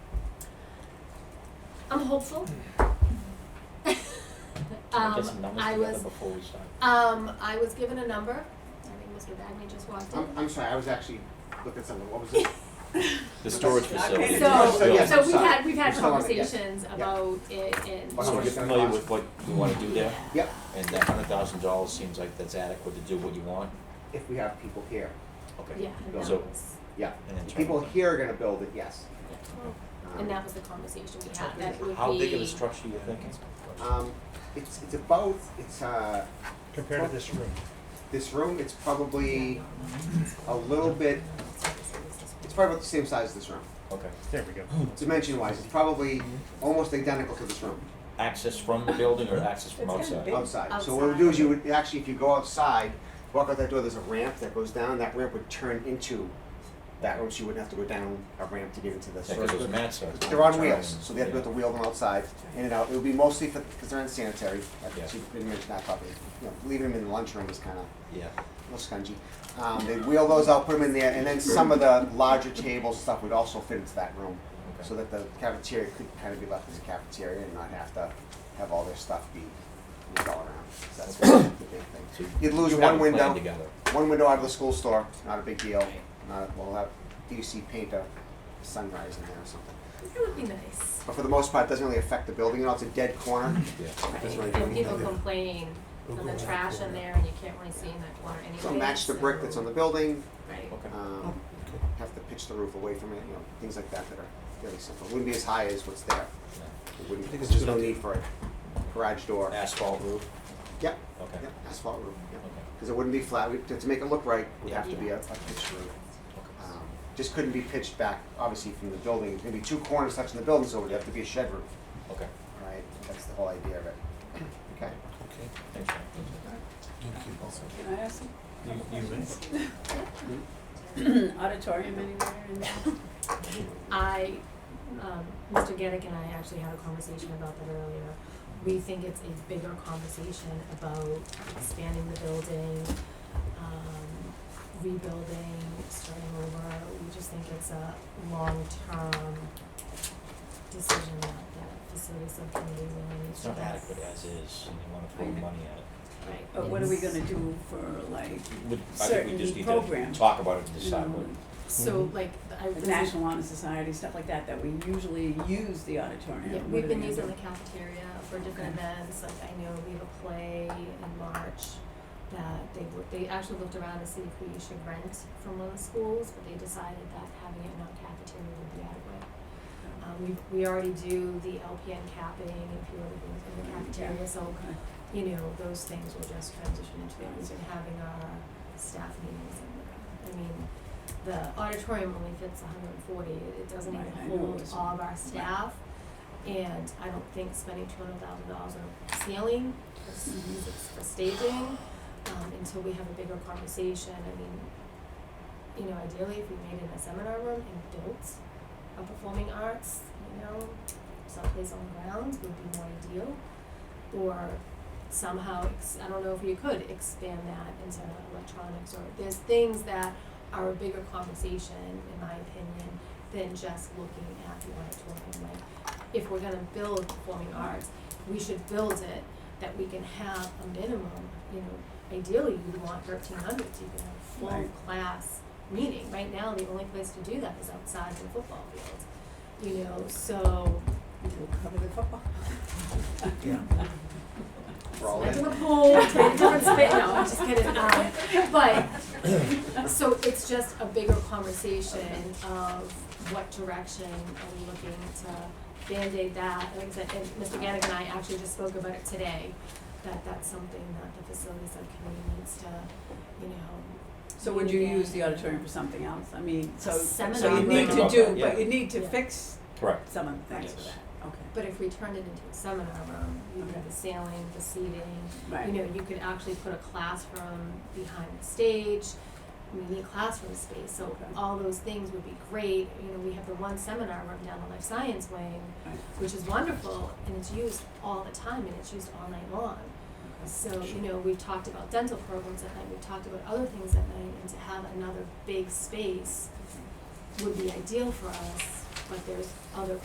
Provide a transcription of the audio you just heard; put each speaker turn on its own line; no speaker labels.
I'm hopeful.
I'll
Um,
get some numbers
I
together
was,
before we start.
um, I was given a number, I think Mr. Bagney just walked
I'm,
in.
I'm sorry, I was actually looking at something, what was it?
The storage
Okay.
facility.
So,
so, yeah,
so we've
sorry.
had, we've had
We're still on it, yes.
conversations
Yeah.
about it and.
Well, how
So
much
you're
it's gonna
familiar
cost?
with what you wanna do there,
Yep,
and that hundred thousand dollars seems like that's adequate to do what you want,
if we have people here,
okay?
Yeah, and that
So-
was,
yeah.
And then
If people
turn it.
here are gonna build it, yes. Um,
and that was the conversation we had, that would be.
How big of a structure you thinking?
Um, it's, it's about, it's, uh,
compared to this room.
this room, it's probably a little bit, it's probably about the same size as this room.
Okay.
There we go.
Dimension wise, it's probably almost identical to this room
Access from the building or access from
It's gonna
outside?
be-
outside. So what we do is you would, actually, if you go outside, walk out that door, there's a ramp that goes down, that ramp would turn into that room, so you wouldn't have to go down a ramp to get into this.
Yeah, 'cause those mats are.
They're on wheels, so they have to
Yeah.
have to wheel them outside, in and out. It would be mostly for, because they're unsanitary,
Yeah.
like she didn't mention that probably. You know, leaving them in the lunchroom is kind of,
Yeah,
a little scungy. Um, they wheel those out, put them in there, and then some of the larger tables stuff would also fit into that room.
Okay.
So that the cafeteria could kind of be left as a cafeteria and not have to have all their stuff be moved all around. So that's the big
so
thing.
you
You'd lose
you
one
have a
window.
plan together.
One window out of the school store, not a big deal. Not, we'll have DUC paint a sunrise in there or something.
It would be nice.
But for the most part, it doesn't really affect the building at all. It's a dead corner.
Yeah,
That's
Right,
right.
and people complain from the trash in there and you can't really see in that corner anyway.
So match the brick that's on the building.
Right.
okay.
Um, have to pitch the roof away from it. You know, things like that that are really simple. Wouldn't be as high as what's there.
Yeah.
It wouldn't.
I think it's
there's
just
no
up to-
need for a garage door.
Asphalt roof,
Yep.
okay,
Yep. Asphalt roof. Yep.
okay,
Because it wouldn't be flat. We, to, to make it look right, it would have to be a, a
Yeah.
pitched roof.
okay.
Um, just couldn't be pitched back, obviously, from the building. There's gonna be two corners touching the building, so it would have to be a shed roof.
Okay,
Right. That's the whole idea of it. Okay.
thanks, Frank.
Can I ask some
You, you may.
auditorium anywhere in
I, um, Mr. Geddick and I actually had a conversation about that earlier. We think it's a bigger conversation about expanding the building, um, rebuilding, starting over. We just think it's a long-term decision that that facility subcommittee really needs
It's
to
not
have.
adequate as is, and you wanna throw money at it.
Right.
But what are we
It's-
gonna do for like,
Would- I think we just
Certainly
need to
program.
talk about it and
you
decide
know,
what,
So like, I,
the National Honor Society, stuff like that, that we usually use the auditorium?
Yeah,
What
we've
are
been
we
using
gonna
the cafeteria for different
Okay.
events, like I know we have a play in March that they were, they actually looked around to see if we should rent from one of the schools, but they decided that having it in our cafeteria would be adequate.
Mm-hmm.
Um, we, we already do the LPN capping and a few other things in the
Yeah.
cafeteria, so,
Okay.
you know, those things will just transition into,
Yeah.
we've been having our staff meetings and, I mean, the auditorium only fits hundred and forty, it doesn't even
Right, I know,
hold
it's-
all of our staff. And I don't think spending two hundred thousand dollars on ceiling, is-
Mm-hmm.
is for staging, um, until we have a bigger conversation, I mean, you know, ideally, if we made it in a seminar room and built a performing arts, you know, someplace on the grounds would be more ideal. Or somehow, ex- I don't know if you could expand that into electronics or, there's things that are a bigger conversation, in my opinion, than just looking at the auditorium. Like, if we're gonna build performing arts, we should build it that we can have a minimum, you know, ideally, you'd want thirteen hundred, so you can have full
Right.
class meeting. Right now, the only place to do that is outside the football field, you know, so,
We'll cover the football.
We're all
Back
in.
in the pool, trying different spit, no, I'm just kidding, um, but, so it's just a bigger conversation of what direction are we looking to Band-Aid that, like I said, and Mr. Gannick and I actually just spoke about it today, that that's something that the facility subcommittee needs to, you know,
So would you use the auditorium for something else? I mean, so, so
Seminar
you need to
room.
do,
Yeah.
but you need to
Yeah.
fix
correct,
some of the things for
Yes.
that, okay,
but if we turned it into a seminar room, you could have the ceiling, the seating,
right.
you know, you could actually put a classroom behind the stage. We need classroom space, so
Okay.
all those things would be great. You know, we have the one seminar room down the life science wing,
Right.
which is wonderful, and it's used all the time, and it's used all night long. So, you know, we've talked about dental programs at night, we've talked about other things at night, and to have another big space would be ideal for us, but there's other